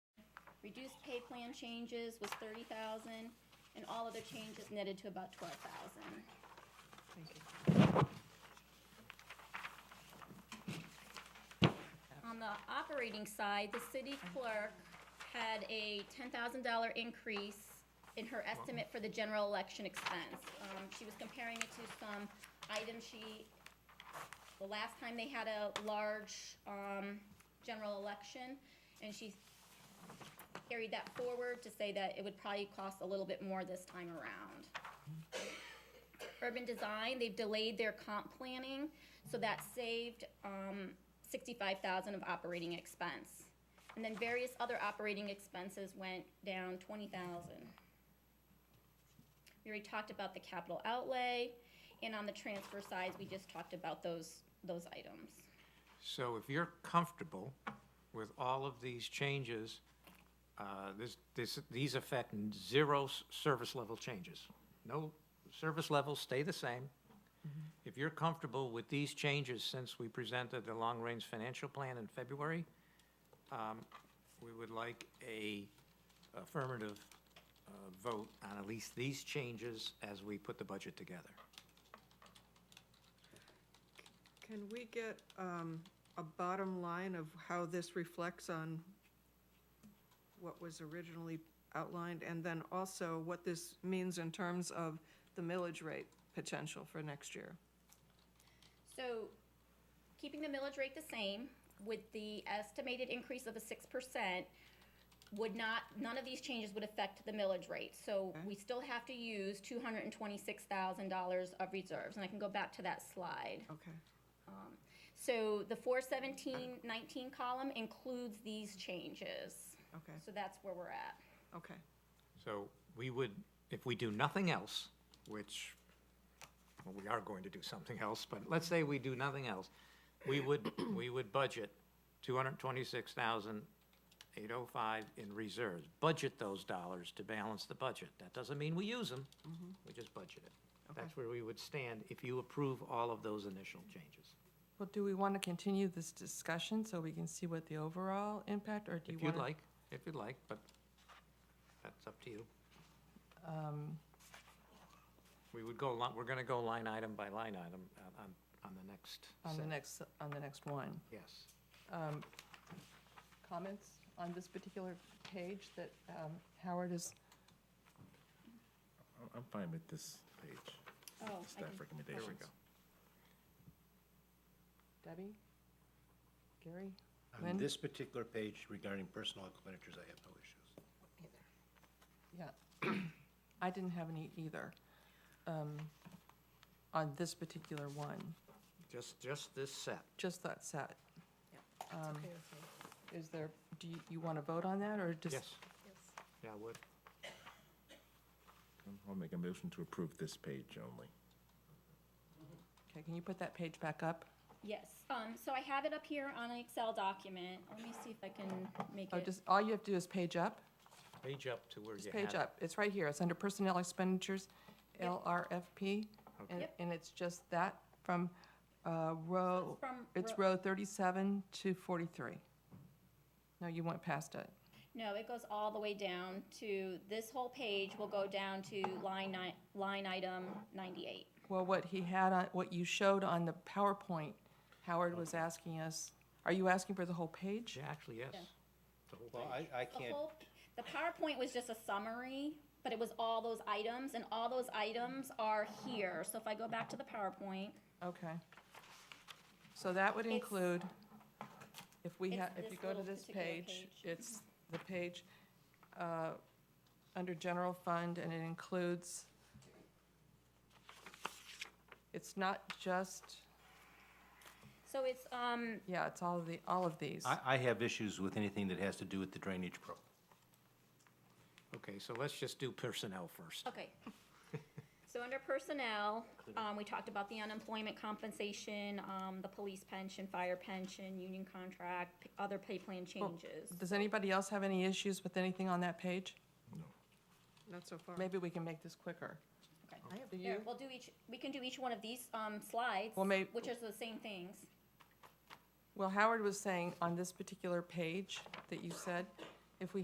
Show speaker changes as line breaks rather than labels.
Reduced pay plan changes was thirty thousand, and all other changes netted to about twelve thousand.
Thank you.
On the operating side, the city clerk had a ten thousand dollar increase in her estimate for the general election expense. Um, she was comparing it to some items she, the last time they had a large, um, general election, and she carried that forward to say that it would probably cost a little bit more this time around. Urban Design, they've delayed their comp planning, so that saved, um, sixty-five thousand of operating expense. And then various other operating expenses went down twenty thousand. We already talked about the capital outlay, and on the transfer sides, we just talked about those, those items.
So if you're comfortable with all of these changes, uh, this, this, these affect zero s- service level changes. No, service levels stay the same. If you're comfortable with these changes since we presented the long-range financial plan in February, um, we would like a affirmative uh, vote on at least these changes as we put the budget together.
Can we get um, a bottom line of how this reflects on what was originally outlined? And then also what this means in terms of the millage rate potential for next year?
So, keeping the millage rate the same with the estimated increase of a six percent would not, none of these changes would affect the millage rate. So we still have to use two hundred and twenty-six thousand dollars of reserves, and I can go back to that slide.
Okay.
So the four seventeen nineteen column includes these changes.
Okay,
So that's where we're at.
okay.
So we would, if we do nothing else, which, well, we are going to do something else, but let's say we do nothing else, we would, we would budget two hundred twenty-six thousand eight oh five in reserves. Budget those dollars to balance the budget. That doesn't mean we use them, we just budget it. That's where we would stand if you approve all of those initial changes.
Well, do we want to continue this discussion so we can see what the overall impact, or do you
If
want
you'd
to?
like, if you'd like, but that's up to you.
Um,
We would go, li- we're gonna go line item by line item uh, on- on, on the next
On the
set.
next, on the next one.
Yes.
Comments on this particular page that um, Howard is,
I'm- I'm fine with this page,
Oh,
staff recommendations.
There we go.
Debbie? Gary? Lynn?
On this particular page regarding personal expenditures, I have no issues.
Yeah. I didn't have any either, um, on this particular one,
Just, just this set.
just that set. Um,
okay with me.
Is there, do you, you want to vote on that, or just?
Yes. Yeah, I would.
I'll make a motion to approve this page only.
Okay, can you put that page back up?
Yes, um, so I have it up here on an Excel document. Let me see if I can make
Or
it.
Oh, just, all you have to do is page up?
Page up to where you
It's
have.
page
it.
up, it's right here, it's under personnel expenditures, LRFP, and,
Yep.
and it's just that from, uh, row,
from
it's
row-
row thirty-seven to forty-three. No, you went past it,
No, it goes all the way down to, this whole page will go down to line ni- line item ninety-eight.
well, what he had on, what you showed on the PowerPoint, Howard was asking us, are you asking for the whole page?
Yeah, actually, yes.
Yeah.
The whole
Well,
page.
I, I
The
can't,
whole- The PowerPoint was just a summary, but it was all those items, and all those items are here. So if I go back to the PowerPoint,
Okay. So that would
It's-
include, if we
It's
have, if
this
you go to
little
this
particular
page,
page.
it's the page, uh, under general fund, and it includes, it's not just,
so it's, um,
yeah, it's all of the, all of these.
I, I have issues with anything that has to do with the drainage pro.
Okay, so let's just do personnel first.
Okay. So under personnel, um, we talked about the unemployment compensation, um, the police pension, fire pension, union contract, p- other pay plan changes.
Does anybody else have any issues with anything on that page?
Not so far.
Maybe we can make this quicker. Do
Here,
you?
we'll do each, we can do each one of these, um, slides,
Well, may-
which is the same things.
Well, Howard was saying on this particular page that you said,